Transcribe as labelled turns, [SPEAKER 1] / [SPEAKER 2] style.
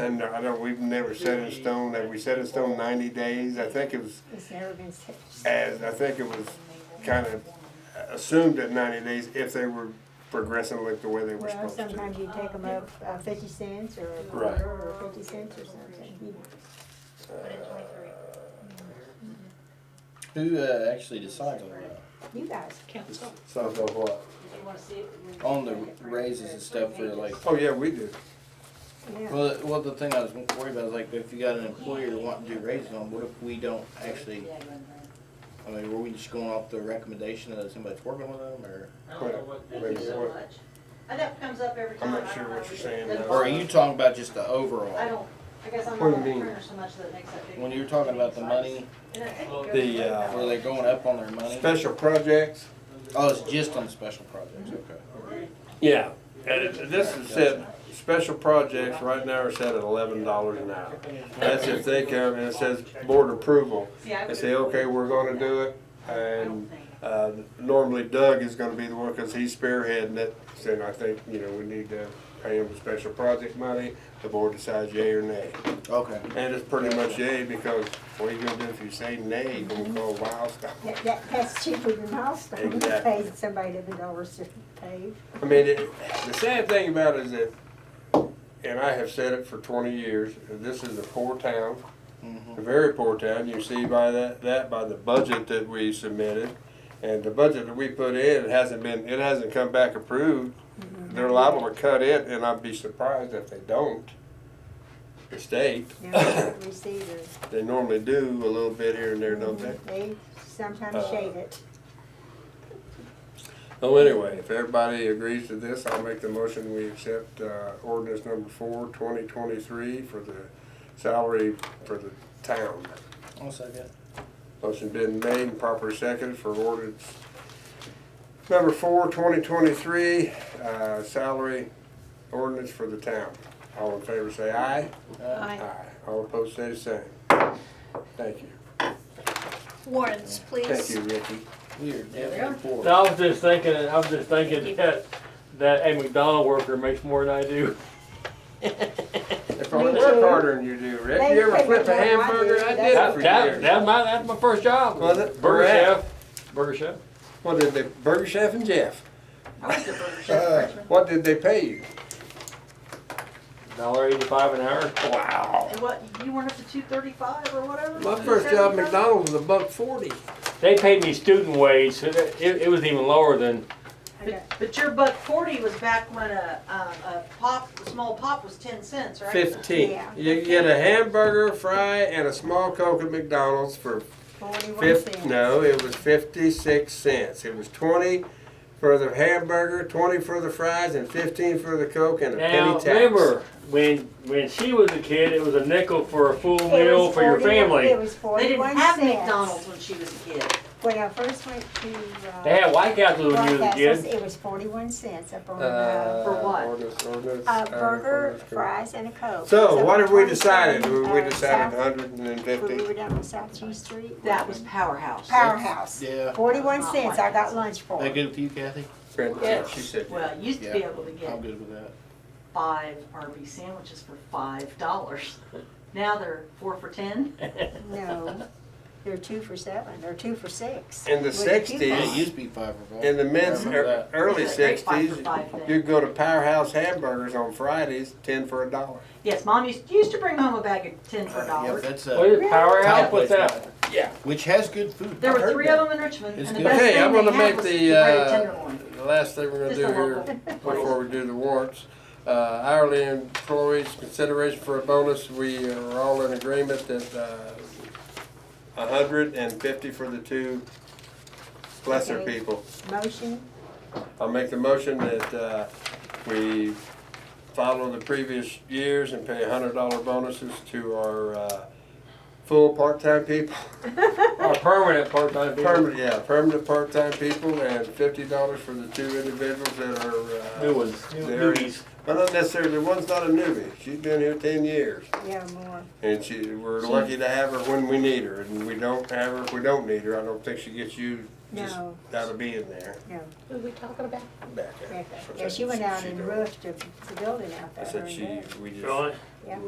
[SPEAKER 1] And uh, I don't, we've never set in stone, have we set in stone ninety days? I think it was,
[SPEAKER 2] It's never been set.
[SPEAKER 1] as, I think it was kind of assumed at ninety days if they were progressing like the way they were
[SPEAKER 2] Well,
[SPEAKER 1] supposed
[SPEAKER 2] sometimes
[SPEAKER 1] to.
[SPEAKER 2] you take them
[SPEAKER 3] Oh,
[SPEAKER 2] up uh, fifty cents or a
[SPEAKER 1] Right.
[SPEAKER 2] quarter or fifty cents or something. You-
[SPEAKER 4] Who uh, actually decides on that?
[SPEAKER 2] You guys,
[SPEAKER 5] Council.
[SPEAKER 1] So, so what?
[SPEAKER 4] On the raises and stuff for like.
[SPEAKER 1] Oh, yeah, we do.
[SPEAKER 2] yeah.
[SPEAKER 4] Well, the- well, the thing I was worried about is like, if you got an employer wanting to do raises on, what if we don't actually? I mean, were we just going off the recommendation that somebody's working with them, or
[SPEAKER 6] I don't know what
[SPEAKER 1] Wait,
[SPEAKER 6] the-
[SPEAKER 1] wait,
[SPEAKER 3] Thank you so
[SPEAKER 1] what-
[SPEAKER 3] much. And that comes up every
[SPEAKER 1] I'm
[SPEAKER 3] time.
[SPEAKER 1] not
[SPEAKER 3] I
[SPEAKER 1] sure
[SPEAKER 3] don't
[SPEAKER 1] what
[SPEAKER 3] know.
[SPEAKER 1] you're saying
[SPEAKER 3] They
[SPEAKER 1] now.
[SPEAKER 4] or are you talking about just the overall?
[SPEAKER 3] Uh, I don't, I guess I'm
[SPEAKER 1] What
[SPEAKER 3] not
[SPEAKER 1] do
[SPEAKER 3] a
[SPEAKER 1] you mean?
[SPEAKER 3] printer so much that makes that big.
[SPEAKER 4] When you're talking about the money,
[SPEAKER 3] And I think it
[SPEAKER 6] Well,
[SPEAKER 3] goes
[SPEAKER 1] the,
[SPEAKER 3] way
[SPEAKER 1] uh,
[SPEAKER 3] back.
[SPEAKER 4] were they going up on their money?
[SPEAKER 1] Special projects?
[SPEAKER 4] Oh, it's just on special projects. Okay.
[SPEAKER 1] Yeah, and it- this is said, special projects right now are set at eleven dollars an hour. That's if they come and it says board approval.
[SPEAKER 3] See, I
[SPEAKER 1] They
[SPEAKER 3] would-
[SPEAKER 1] say, okay, we're gonna do it,
[SPEAKER 3] I don't
[SPEAKER 1] and
[SPEAKER 3] think.
[SPEAKER 1] Uh, normally Doug is gonna be the one, cause he's spearheading it, saying, I think, you know, we need to pay him special project money, the board decides yay or nay.
[SPEAKER 4] Okay.
[SPEAKER 1] And it's pretty much yay, because what are you gonna do if you say nay, you gonna call Wildstar?
[SPEAKER 2] That, that, that's cheaper than milestone, you
[SPEAKER 1] Exactly.
[SPEAKER 2] pay somebody eleven dollars to pave.
[SPEAKER 1] I mean, it, the sad thing about it is that, and I have said it for twenty years, this is a poor town,
[SPEAKER 4] Mm-hmm.
[SPEAKER 1] a very poor town, you see by that, that by the budget that we submitted. And the budget that we put in, it hasn't been, it hasn't come back approved. They're liable to cut it, and I'd be surprised if they don't. The state,
[SPEAKER 2] Now, receivers,
[SPEAKER 1] they normally do a little bit here and there, don't they?
[SPEAKER 2] they sometimes
[SPEAKER 1] Uh,
[SPEAKER 2] shade it.
[SPEAKER 1] Well, Oh, anyway, if everybody agrees to this, I'll make the motion, we accept, uh, ordinance number four, twenty twenty-three for the salary for the town.
[SPEAKER 4] One second.
[SPEAKER 1] Motion been made and properly seconded for ordinance number four, twenty twenty-three, uh, salary ordinance for the town. All in favor say aye.
[SPEAKER 4] Uh,
[SPEAKER 1] All opposed say the same. Thank you.
[SPEAKER 5] Warrants,
[SPEAKER 1] Thank
[SPEAKER 5] please.
[SPEAKER 1] you, Ricky.
[SPEAKER 4] we are definitely poor.
[SPEAKER 6] No, I was just thinking, I was just thinking that, that a McDonald worker makes more than I do.
[SPEAKER 1] They probably work harder than you do, Rick.
[SPEAKER 2] They
[SPEAKER 1] You ever
[SPEAKER 2] pay me
[SPEAKER 1] flip a
[SPEAKER 2] more than I
[SPEAKER 1] hamburger?
[SPEAKER 2] do.
[SPEAKER 1] I did it
[SPEAKER 6] That,
[SPEAKER 1] for
[SPEAKER 6] that,
[SPEAKER 1] years.
[SPEAKER 6] that my, that's my first job.
[SPEAKER 1] Was it?
[SPEAKER 6] Burger
[SPEAKER 1] Where at?
[SPEAKER 6] chef, burger chef.
[SPEAKER 1] What did they, Burger Chef and Jeff,
[SPEAKER 3] I was a burger chef freshman.
[SPEAKER 1] what did they pay you?
[SPEAKER 6] Dollar eighty-five an hour.
[SPEAKER 1] Wow.
[SPEAKER 3] And what, you weren't up to two thirty-five or whatever?
[SPEAKER 1] Uh, My first job at McDonald's was a buck forty.
[SPEAKER 6] They paid me student wage, so that, it, it was even lower than,
[SPEAKER 2] I
[SPEAKER 3] But, but your buck forty was back when a, um, a pop, a small pop was ten cents, right?
[SPEAKER 1] Fifteen.
[SPEAKER 2] Yeah.
[SPEAKER 1] You get a hamburger, fry, and a small Coke at McDonald's for
[SPEAKER 2] got Forty-one
[SPEAKER 1] fif,
[SPEAKER 2] cents.
[SPEAKER 1] no, it was fifty-six cents. It was twenty for the hamburger, twenty for the fries, and fifteen for the Coke and a penny
[SPEAKER 6] now,
[SPEAKER 1] tax.
[SPEAKER 6] remember, when, when she was a kid, it was a nickel for a full
[SPEAKER 2] It
[SPEAKER 6] meal
[SPEAKER 2] was
[SPEAKER 6] for your
[SPEAKER 2] 41 It
[SPEAKER 6] family.
[SPEAKER 2] was
[SPEAKER 3] They didn't
[SPEAKER 2] forty-one
[SPEAKER 3] have McDonald's
[SPEAKER 2] cents.
[SPEAKER 3] when she was a kid.
[SPEAKER 2] When I first went to, uh.
[SPEAKER 6] They had White Castle when you was a
[SPEAKER 2] Broadcastles,
[SPEAKER 6] kid.
[SPEAKER 2] it was forty-one cents up on,
[SPEAKER 1] Uh,
[SPEAKER 2] uh,
[SPEAKER 3] For what?
[SPEAKER 1] ordinance, ordinance,
[SPEAKER 2] a
[SPEAKER 1] uh,
[SPEAKER 2] burger,
[SPEAKER 1] ordinance.
[SPEAKER 2] fries, and a coke.
[SPEAKER 1] So what have we
[SPEAKER 2] 127,
[SPEAKER 1] decided? We we
[SPEAKER 2] uh,
[SPEAKER 1] decided
[SPEAKER 2] South-
[SPEAKER 1] hundred and
[SPEAKER 2] When we
[SPEAKER 1] fifty?
[SPEAKER 2] were down on South G Street.
[SPEAKER 3] That was powerhouse.
[SPEAKER 2] Powerhouse.
[SPEAKER 4] Yeah.
[SPEAKER 2] Forty-one cents I got lunch for.
[SPEAKER 4] That good with you, Kathy?
[SPEAKER 1] She said.
[SPEAKER 3] Well, you used to be
[SPEAKER 4] Yeah.
[SPEAKER 3] able to
[SPEAKER 4] I'm
[SPEAKER 3] get
[SPEAKER 4] good with that.
[SPEAKER 3] five RB sandwiches for five dollars. Now they're four for ten.
[SPEAKER 2] No, they're two for seven, they're two for six.
[SPEAKER 1] In the
[SPEAKER 2] With a coupon.
[SPEAKER 1] 60s,
[SPEAKER 4] It used to be five or five.
[SPEAKER 1] In the men's
[SPEAKER 4] I remember
[SPEAKER 1] er-
[SPEAKER 4] that.
[SPEAKER 1] early
[SPEAKER 3] It's like five for
[SPEAKER 1] sixties,
[SPEAKER 3] five then.
[SPEAKER 1] you'd go to Powerhouse Hamburgers on Fridays, ten for a dollar.
[SPEAKER 3] Yes, mom used, used to bring home a bag of ten for a
[SPEAKER 4] Yeah,
[SPEAKER 3] dollar.
[SPEAKER 4] that's
[SPEAKER 6] What
[SPEAKER 4] uh
[SPEAKER 6] is Powerhouse,
[SPEAKER 4] Thai
[SPEAKER 6] what's
[SPEAKER 4] place
[SPEAKER 6] that?
[SPEAKER 4] now,
[SPEAKER 1] Yeah.
[SPEAKER 4] Which has good food.
[SPEAKER 3] There
[SPEAKER 4] I've
[SPEAKER 3] were
[SPEAKER 4] heard
[SPEAKER 3] three
[SPEAKER 4] that.
[SPEAKER 3] of them in Richmond,
[SPEAKER 4] It's
[SPEAKER 3] and the
[SPEAKER 4] good.
[SPEAKER 3] best
[SPEAKER 1] Okay, I'm
[SPEAKER 3] thing
[SPEAKER 1] gonna
[SPEAKER 3] they
[SPEAKER 1] make
[SPEAKER 3] had was the
[SPEAKER 1] the,
[SPEAKER 3] breaded
[SPEAKER 1] uh,
[SPEAKER 3] tenderloin.
[SPEAKER 1] the last thing we're gonna
[SPEAKER 3] Just
[SPEAKER 1] do
[SPEAKER 3] a
[SPEAKER 1] here,
[SPEAKER 3] local.
[SPEAKER 1] before we do the warrants, uh, hourly employees, consideration for a bonus, we are all in agreement that, uh, a hundred and fifty for the two lesser
[SPEAKER 2] Okay.
[SPEAKER 1] people.
[SPEAKER 2] Motion,
[SPEAKER 1] I'll make the motion that, uh, we follow the previous years and pay hundred dollar bonuses to our, uh, full part-time people.
[SPEAKER 6] Or permanent part-time people,
[SPEAKER 1] Permanent, yeah, permanent part-time people and fifty dollars for the two individuals that are, uh.
[SPEAKER 6] new ones, new
[SPEAKER 1] There.
[SPEAKER 6] newbies.
[SPEAKER 1] Well, not necessarily, one's not a newbie, she's been here ten years,
[SPEAKER 2] yeah, more.
[SPEAKER 1] and she, we're lucky to have her when we need her, and we don't have her if we don't need her, I don't think she gets used just
[SPEAKER 2] No.
[SPEAKER 1] out of being there,
[SPEAKER 5] Who are we talking about?
[SPEAKER 1] back there.
[SPEAKER 2] Yeah, she went out and roofed the the building out
[SPEAKER 1] I
[SPEAKER 2] there. her
[SPEAKER 1] said
[SPEAKER 2] and
[SPEAKER 1] she,
[SPEAKER 2] Dad.
[SPEAKER 1] we just.
[SPEAKER 6] Sean?
[SPEAKER 2] Yeah.